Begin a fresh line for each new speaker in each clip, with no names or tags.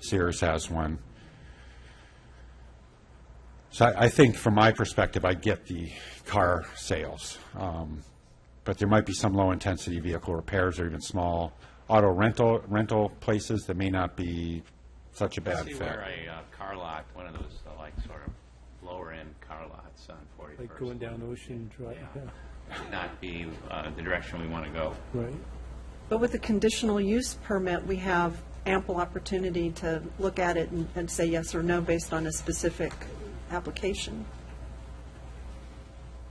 Sears has one. So I, I think from my perspective, I get the car sales. Um, But there might be some low-intensity vehicle repairs or even small auto rental, rental places that may not be such a bad
See
fit.
where a uh, car lot, one of those, uh, like, sort of lower-end car lots on
Like going
41st
down Ocean Drive, yeah,
would not be uh, the direction we want to go.
right.
But with the conditional use permit, we have ample opportunity to look at it and- and say yes or no based on a specific application.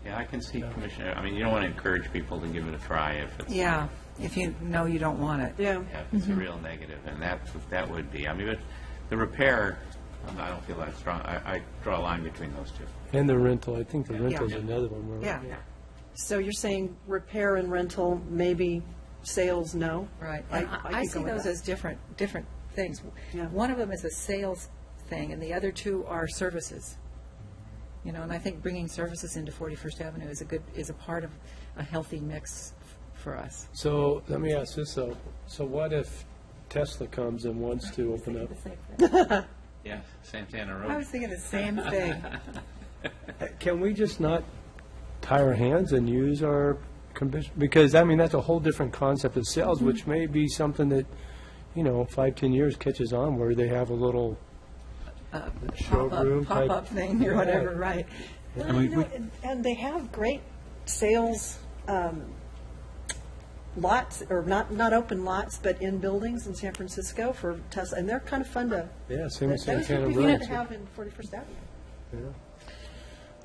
Yeah, I can see Commissioner, I mean, you don't want to encourage people to give it a try if it's,
Yeah, if you know you don't want it.
Yeah.
yeah, if it's
Mm-hmm.
a real negative, and that, that would be, I mean, but the repair, um, I don't feel that strong, I, I draw a line between those two.
And the rental, I think the rental's another one, where-
Yeah,
So you're saying repair and rental, maybe sales, no?
right.
I-
And
I
I I
could
see
go with
those
that.
as different, different things.
Yeah.
One of them is a sales thing, and the other two are services. You know, and I think bringing services into 41st Avenue is a good, is a part of a healthy mix f- for us.
So, let me ask this though, so what if Tesla comes and wants to open up?
Yeah, Santana
I
Road.
was thinking the same thing.
Uh, Can we just not tie our hands and use our commission, because, I mean, that's a whole different concept of sales, which may be something that, you know, five, ten years catches on where they have a little showroom
Uh, Pop-up,
type.
pop-up thing or whatever, right.
And we- we-
And- And they have great sales um, lots, or not, not open lots, but in buildings in San Francisco for Tesla, and they're kind of fun to,
Yeah, same with
those would
Santana
be
Road.
good to have in 41st Avenue.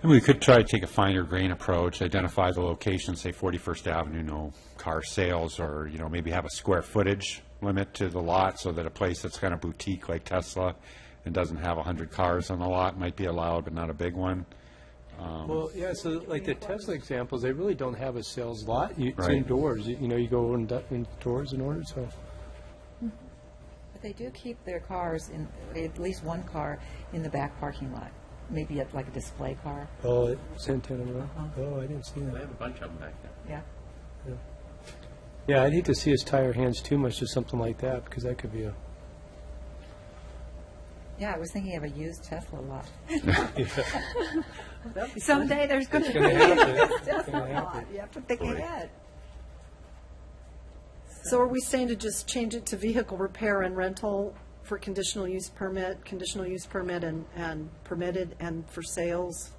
And we could try to take a finer grain approach, identify the location, say 41st Avenue, no car sales, or, you know, maybe have a square footage limit to the lot, so that a place that's kind of boutique like Tesla and doesn't have 100 cars on the lot might be allowed, but not a big one.
Well, yeah, so like the Tesla examples, they really don't have a sales lot. You- It's
Right.
indoors, you you know, you go in- indoors in order, so.
But they do keep their cars in, at least one car in the back parking lot, maybe at like a display car,
Oh, Santana Row? Oh, I didn't see
They
that.
have a bunch of them back there.
yeah.
Yeah, I'd hate to see us tie our hands too much to something like that, because that could be a,
Yeah, I was thinking of a used Tesla lot. Someday there's going to be
gonna
a
happen.
used Tesla lot. You have to think
Right.
ahead.
So are we saying to just change it to vehicle repair and rental for conditional use permit, conditional use permit and, and permitted, and for sales?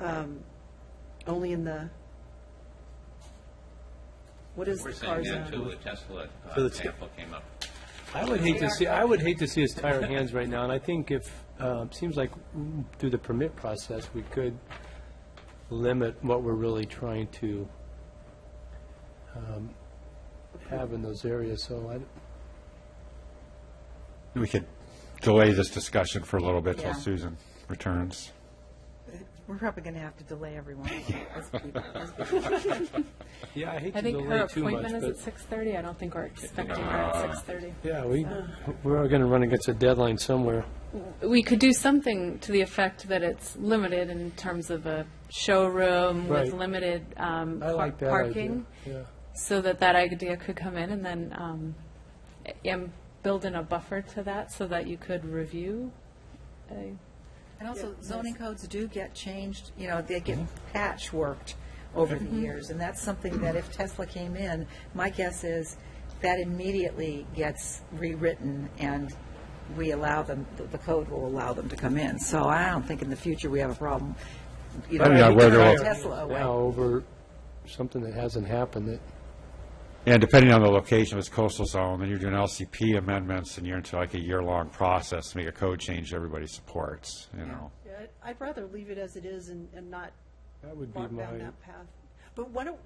um, Only in the, what is
We're
the
saying
car
that too,
zone?
the Tesla uh,
So it's-
example came up.
I would hate to see, I would hate to see us tie our hands right now, and I think if, um, seems like mm, through the permit process, we could limit what we're really trying to um, have in those areas, so I,
We could delay this discussion for a little bit till
Yeah.
Susan returns.
We're probably going to have to delay everyone. as people- as people-
yeah, I hate
I
to
think her
delay too much,
appointment is at
but,
six thirty. I don't think we're expecting her at six thirty.
yeah, we, we're gonna run against a deadline somewhere.
We could do something to the effect that it's limited in terms of a showroom
Right.
with limited um,
I
par-
like that idea.
parking.
Yeah.
So that that idea could come in and then, um, and build in a buffer to that so that you could review. a-
And also zoning codes do get changed, you know, they get patchworked over the years. And that's something that if Tesla came in, my guess is that immediately gets rewritten and we allow them, the- the code will allow them to come in. So I don't think in the future we have a problem. you know,
I don't know
having
whether
to
we'll-
throw
Oh,
Tesla away.
Now over something that hasn't happened that,
And depending on the location, if it's coastal zone, then you're doing LCP amendments, and you're into like a year-long process to make a code change everybody supports, you know?
Yeah, I'd- I'd rather leave it as it is and, and not
that would be
walk
my,
down that path. But why don't,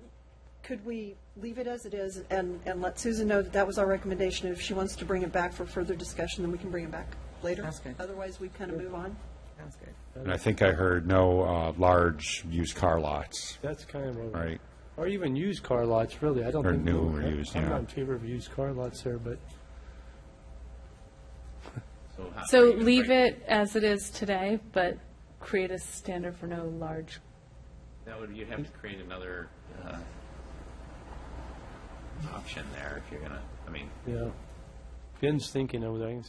could we leave it as it is and, and let Susan know that that was our recommendation? If she wants to bring it back for further discussion, then we can bring it back later.
Sounds good.
Otherwise, we kind of move on.
Sounds good.
And I think I heard no uh, large used car lots,
that's kind of my.
right?
Or even used car lots, really, I don't
Or
think.
new
we-
or used,
I'm
yeah.
not in favor of used car lots there, but
how-
So
how you
leave
break-
it as it is today, but create a standard for no large
That would, you'd have to create another uh, option there if you're gonna, I mean,
Yeah. Ben's thinking over there. I can